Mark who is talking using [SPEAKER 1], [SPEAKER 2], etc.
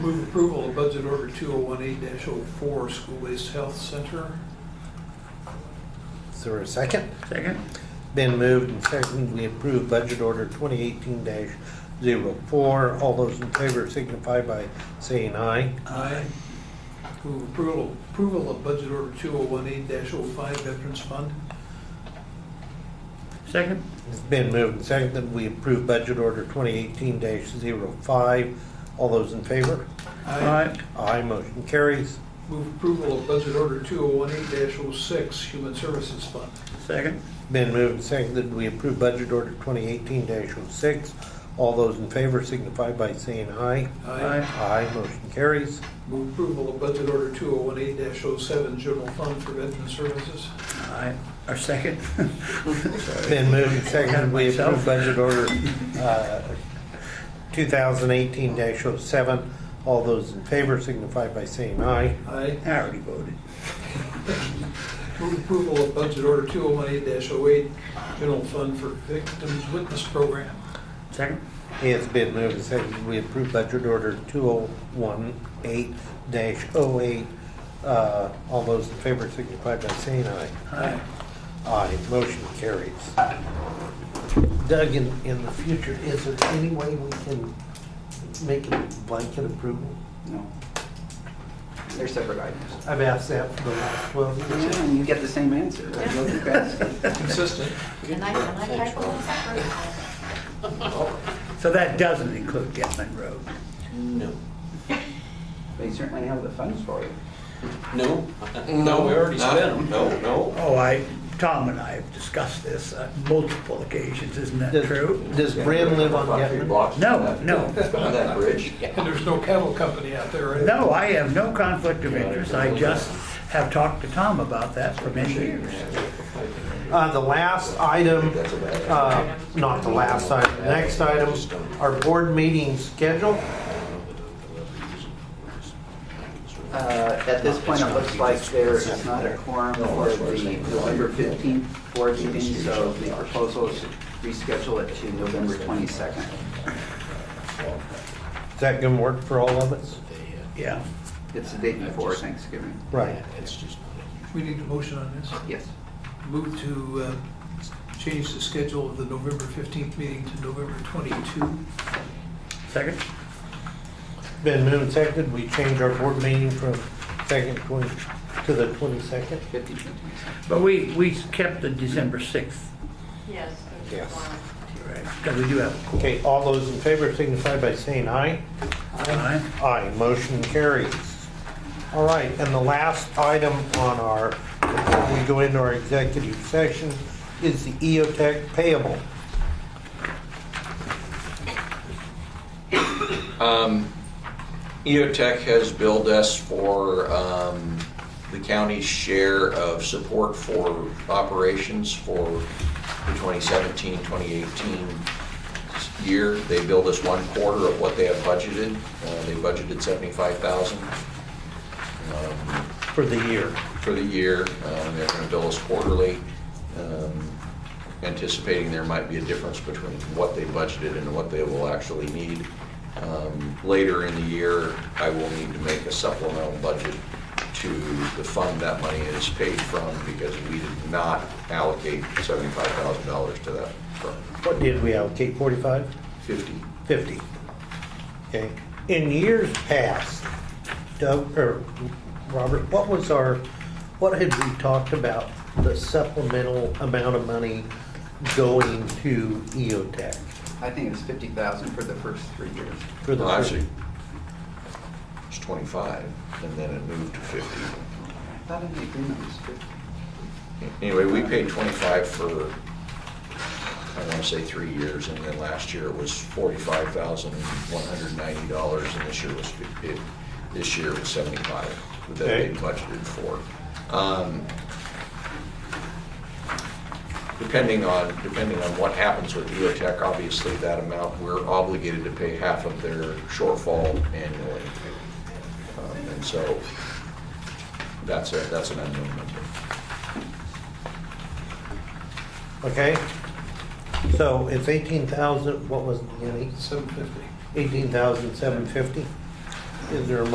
[SPEAKER 1] Move approval of budget order 2018-04, school-based health center.
[SPEAKER 2] Is there a second?
[SPEAKER 3] Second?
[SPEAKER 2] Been moved and seconded, we approve budget order 2018-04. All those in favor signify by saying aye.
[SPEAKER 1] Aye. Move approval, approval of budget order 2018-05, veterans fund.
[SPEAKER 3] Second?
[SPEAKER 2] It's been moved and seconded, we approve budget order 2018-05. All those in favor?
[SPEAKER 3] Aye.
[SPEAKER 2] Aye, motion carries.
[SPEAKER 1] Move approval of budget order 2018-06, human services fund.
[SPEAKER 3] Second?
[SPEAKER 2] Been moved and seconded, we approve budget order 2018-06. All those in favor signify by saying aye. Aye, motion carries.
[SPEAKER 1] Move approval of budget order 2018-07, general fund for veteran services.
[SPEAKER 3] Aye. Or second?
[SPEAKER 2] Been moved and seconded, we approve
[SPEAKER 3] Myself.
[SPEAKER 2] budget order uh, 2018-07. All those in favor signify by saying aye.
[SPEAKER 1] Aye.
[SPEAKER 3] I already voted.
[SPEAKER 1] Move approval of budget order 2018-08, general fund for victims witness program.
[SPEAKER 3] Second?
[SPEAKER 2] It's been moved and seconded, we approve budget order 2018-08. Uh, All those in favor signify by saying aye.
[SPEAKER 3] Aye.
[SPEAKER 2] Aye, motion carries. Doug, in, in the future, is there any way we can make a blanket approval?
[SPEAKER 4] No. They're separate items.
[SPEAKER 2] I've asked that for the last 12 years.
[SPEAKER 4] And you get the same answer. There's no comparison.
[SPEAKER 1] Consistent.
[SPEAKER 5] And I, and I tried to separate.
[SPEAKER 3] So that doesn't include Gatlin Road.
[SPEAKER 6] No.
[SPEAKER 4] They certainly have the funds for it.
[SPEAKER 6] No. No, we already
[SPEAKER 7] Not-
[SPEAKER 6] spent them. No, no.
[SPEAKER 3] Oh, I, Tom and I have discussed this on multiple occasions, isn't that
[SPEAKER 2] Does-
[SPEAKER 3] true?
[SPEAKER 2] Does Bren live on
[SPEAKER 7] About three
[SPEAKER 2] Getman?
[SPEAKER 7] blocks from
[SPEAKER 3] No,
[SPEAKER 7] that-
[SPEAKER 3] no,
[SPEAKER 7] On that bridge?
[SPEAKER 1] And there's no cattle company out there, right?
[SPEAKER 3] no, I have no conflict of interest, I just have talked to Tom about that for many years.
[SPEAKER 2] Uh, the last item,
[SPEAKER 7] That's a bad.
[SPEAKER 2] uh, not the last item, the next item, our board meeting schedule.
[SPEAKER 4] Uh, At this point, it looks like there is not a quorum for the November 15th board meeting, so the proposal is to reschedule it to November 22nd.
[SPEAKER 2] Is that gonna work for all of us?
[SPEAKER 3] Yeah,
[SPEAKER 4] It's the day before Thanksgiving.
[SPEAKER 2] Right.
[SPEAKER 1] We need a motion on this.
[SPEAKER 4] Yes.
[SPEAKER 1] Move to uh, change the schedule of the November 15th meeting to November 22.
[SPEAKER 3] second?
[SPEAKER 2] Been moved and seconded, we change our board meeting from second twenty, to the twenty-second?
[SPEAKER 4] 15th to 22nd.
[SPEAKER 3] But we, we kept the December 6th,
[SPEAKER 5] Yes.
[SPEAKER 2] Yes.
[SPEAKER 3] right, because we do have a
[SPEAKER 2] Okay, all those in favor signify by saying aye.
[SPEAKER 3] Aye.
[SPEAKER 2] Aye, motion carries. All right, and the last item on our, before we go into our executive session, is the E EOTech payable.
[SPEAKER 7] Um, EOTech has billed us for um, the county's share of support for operations for the 2017, 2018 year. They billed us one quarter of what they have budgeted. Uh, They budgeted 75,000. Um,
[SPEAKER 2] For the year.
[SPEAKER 7] for the year. Um, They're going to bill us quarterly, um, anticipating there might be a difference between what they budgeted and what they will actually need. Um, Later in the year, I will need to make a supplemental budget to the fund that money is paid from because we did not allocate $75,000 to that fund.
[SPEAKER 2] What did we allocate, 45?
[SPEAKER 7] 50.
[SPEAKER 2] 50. Okay. In years past, Doug, or Robert, what was our, what had we talked about the supplemental amount of money going to EOTech?
[SPEAKER 4] I think it's 50,000 for the first three years.
[SPEAKER 2] for the
[SPEAKER 7] Well, Actually, it's 25, and then it moved to
[SPEAKER 4] I
[SPEAKER 7] 50.
[SPEAKER 4] thought in the agreement it was 50.
[SPEAKER 7] Anyway, we paid 25 for, I want to say three years, and then last year it was $45,190, and this year was, fif- it- this year was 75 that they
[SPEAKER 2] Okay.
[SPEAKER 7] budgeted for. Um, Depending on, depending on what happens with E EOTech, obviously, that amount, we're obligated to pay half of their shortfall annually. Um, And so, that's a, that's an unknown number.
[SPEAKER 2] Okay? So it's 18,000, what was it, Jenny?
[SPEAKER 1] 750.
[SPEAKER 2] 18,750? Is there a